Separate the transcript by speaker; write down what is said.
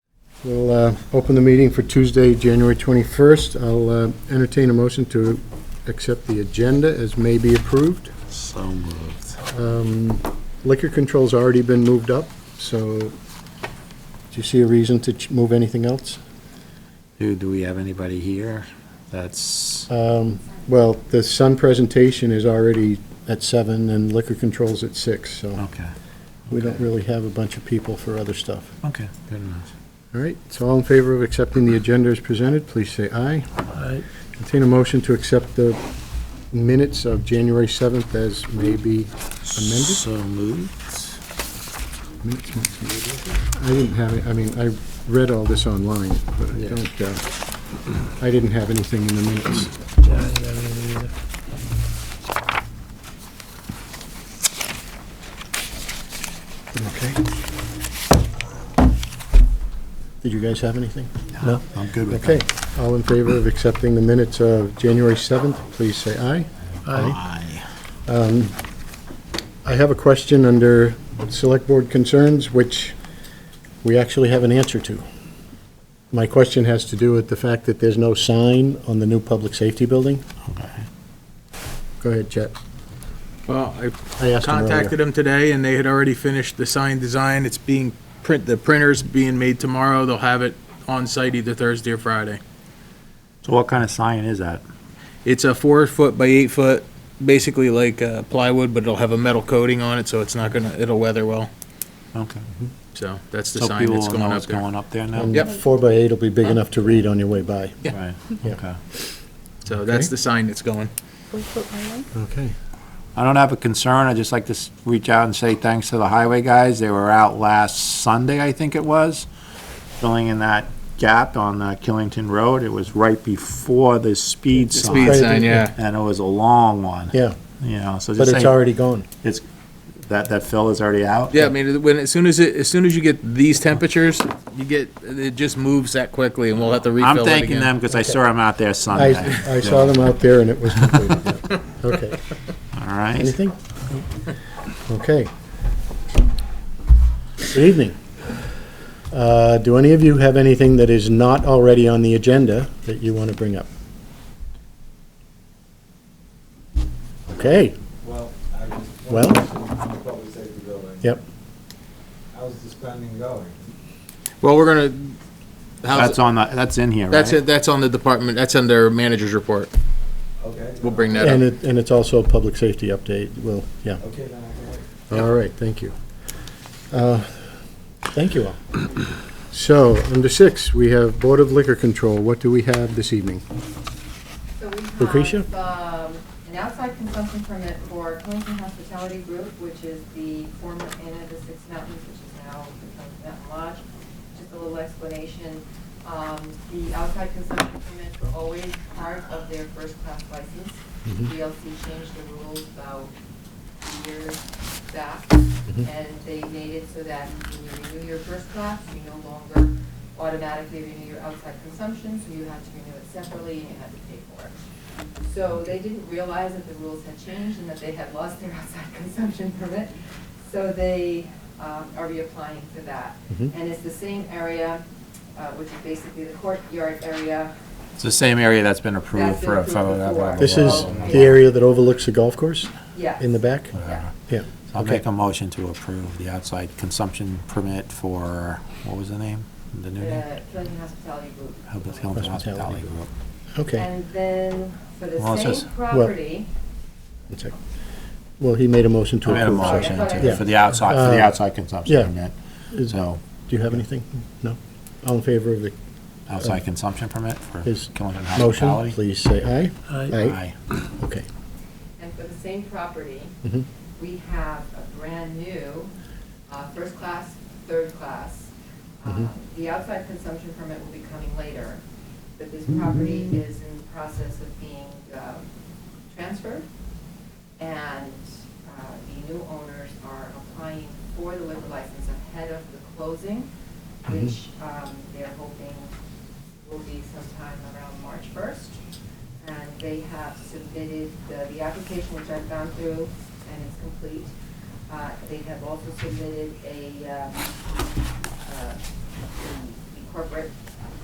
Speaker 1: We'll uh, open the meeting for Tuesday, January 21st. I'll uh, entertain a motion to accept the agenda as may be approved.
Speaker 2: So moved.
Speaker 1: Um, Liquor control's already been moved up, so do you see a reason to ch- move anything else?
Speaker 2: Do, do we have anybody here? That's,
Speaker 3: Uh,
Speaker 1: Um, Well, the sun presentation is already at seven, and liquor control's at six, so
Speaker 2: okay,
Speaker 1: we don't really have a bunch of people for other stuff.
Speaker 2: okay, good enough.
Speaker 1: All right, so all in favor of accepting the agenda as presented, please say aye. Entertain a motion to accept the minutes of January 7th as may be amended.
Speaker 2: So moved.
Speaker 1: Minutes, minutes, minutes. I didn't have, it- I mean, I read all this online, but I
Speaker 2: Yeah.
Speaker 1: don't, uh, I didn't have anything in the minutes.
Speaker 3: Yeah, I didn't have any either.
Speaker 1: Okay. Did you guys have anything?
Speaker 3: No.
Speaker 2: I'm good with
Speaker 1: Okay,
Speaker 2: that.
Speaker 1: all in favor of accepting the minutes of January 7th, please say aye.
Speaker 3: Aye.
Speaker 2: Aye.
Speaker 1: I have a question under Select Board Concerns, which we actually have an answer to. My question has to do with the fact that there's no sign on the new public safety building.
Speaker 2: Okay.
Speaker 1: Go ahead, Chet.
Speaker 4: Well, I
Speaker 1: I asked him earlier.
Speaker 4: contacted them today, and they had already finished the sign design. It's being, print, the printer's being made tomorrow. They'll have it on site either Thursday or Friday.
Speaker 2: So what kind of sign is that?
Speaker 4: It's a four-foot by eight-foot, basically like uh, plywood, but it'll have a metal coating on it, so it's not gonna, it'll weather well.
Speaker 2: Okay.
Speaker 4: So that's the
Speaker 2: So
Speaker 4: sign
Speaker 2: people
Speaker 4: that's
Speaker 2: will
Speaker 4: going
Speaker 2: know
Speaker 4: up
Speaker 2: it's
Speaker 4: there.
Speaker 2: going up there now?
Speaker 3: Um,
Speaker 1: And
Speaker 4: Yep.
Speaker 1: Four by eight will be big enough to read on your way by.
Speaker 4: Yeah.
Speaker 2: Right,
Speaker 1: Yeah.
Speaker 2: okay.
Speaker 4: So that's
Speaker 1: Okay.
Speaker 4: the sign that's going.
Speaker 1: Okay.
Speaker 2: I don't have a concern, I'd just like to s- reach out and say thanks to the highway guys, they were out last Sunday, I think it was, filling in that gap on uh, Killington Road, it was right before the speed
Speaker 4: The speed
Speaker 1: Right,
Speaker 2: sign,
Speaker 4: sign,
Speaker 1: yeah.
Speaker 4: yeah.
Speaker 2: and it was a long one,
Speaker 1: Yeah,
Speaker 2: you know, so
Speaker 1: but
Speaker 2: just
Speaker 1: it's
Speaker 2: say,
Speaker 1: already gone.
Speaker 2: that, that fill is already out?
Speaker 4: Yeah, I mean, when, as soon as it, as soon as you get these temperatures, you get, it just moves that quickly, and we'll have to refill it
Speaker 2: I'm
Speaker 4: again.
Speaker 2: thanking them because I saw them out there
Speaker 1: I,
Speaker 2: Sunday.
Speaker 1: I saw them out there and it was completed. yeah. Okay,
Speaker 2: All right.
Speaker 1: anything? Okay. Good evening. Uh, Do any of you have anything that is not already on the agenda that you want to bring up? Okay,
Speaker 5: Well, I was.
Speaker 1: Well?
Speaker 5: Public safety building.
Speaker 1: Yep.
Speaker 5: How's the spending going?
Speaker 4: Well, we're gonna, how's,
Speaker 2: That's on the, that's in here, right?
Speaker 4: that's it, that's on the department, that's under manager's report.
Speaker 5: Okay.
Speaker 4: We'll bring that up.
Speaker 1: and it, and it's also a public safety update, well, yeah.
Speaker 5: Okay, then I can wait.
Speaker 1: All right, thank you. Uh, Thank you all. So, under six, we have Board of Liquor Control. What do we have this evening?
Speaker 6: So we have
Speaker 1: Lucretia?
Speaker 6: um, an outside consumption permit for Clinton Hospitality Group, which is the former Inn of the Six Mountains, which is now become Mountain Lodge. Just a little explanation. Um, The outside consumption permits were always part of their first-class license.
Speaker 1: Mhm.
Speaker 6: DLC changed the rules about a year back,
Speaker 1: Mhm.
Speaker 6: and they made it so that when you renew your first class, you no longer automatically renew your outside consumption, so you had to renew it separately and you had to pay for it. So they didn't realize that the rules had changed and that they had lost their outside consumption permit, so they um, are reapplying for that.
Speaker 1: Mhm.
Speaker 6: And it's the same area, uh, which is basically the courtyard area.
Speaker 2: It's the same area that's been approved
Speaker 6: That's been
Speaker 2: for a
Speaker 6: approved
Speaker 2: photo. that
Speaker 6: before.
Speaker 2: blah, blah,
Speaker 1: This
Speaker 2: blah,
Speaker 1: is
Speaker 2: blah, blah.
Speaker 1: the area that overlooks the golf course
Speaker 6: Yes.
Speaker 1: in the back?
Speaker 6: Yeah.
Speaker 2: Uh-huh.
Speaker 1: Yeah,
Speaker 2: I'll
Speaker 1: okay.
Speaker 2: make a motion to approve the outside consumption permit for, what was the name? The new name?
Speaker 6: The Killington Hospitality Group.
Speaker 2: Hubble Hill Hospitality Group.
Speaker 1: okay.
Speaker 6: And then for the
Speaker 2: Well, it says-
Speaker 6: same property,
Speaker 1: One sec. Well, he made a motion
Speaker 2: I
Speaker 1: to
Speaker 2: made a
Speaker 1: approve. so-
Speaker 2: motion
Speaker 6: Yeah.
Speaker 2: to, for the outside, for the
Speaker 1: Uh,
Speaker 2: outside
Speaker 1: yeah.
Speaker 2: consumption permit.
Speaker 1: Is-
Speaker 2: So,
Speaker 1: Do you have anything? No? All in favor of the
Speaker 2: outside consumption permit for
Speaker 1: Uh, Is
Speaker 2: Killington
Speaker 1: motion,
Speaker 2: Hospitality.
Speaker 1: please say aye.
Speaker 3: Aye.
Speaker 2: Aye.
Speaker 1: Okay.
Speaker 6: and for the same property,
Speaker 1: Mhm.
Speaker 6: we have a brand-new uh, first class, third class.
Speaker 1: Mhm.
Speaker 6: Uh, The outside consumption permit will be coming later, but this
Speaker 1: Mm-hmm.
Speaker 6: property is in the process of being um, transferred, and uh, the new owners are applying for the liquor license ahead of the closing,
Speaker 1: Mhm.
Speaker 6: which um, they're hoping will be sometime around March 1st. And they have submitted the, the application, which I've gone through, and it's complete. Uh, They have also submitted a, um, uh, the- the corporate separate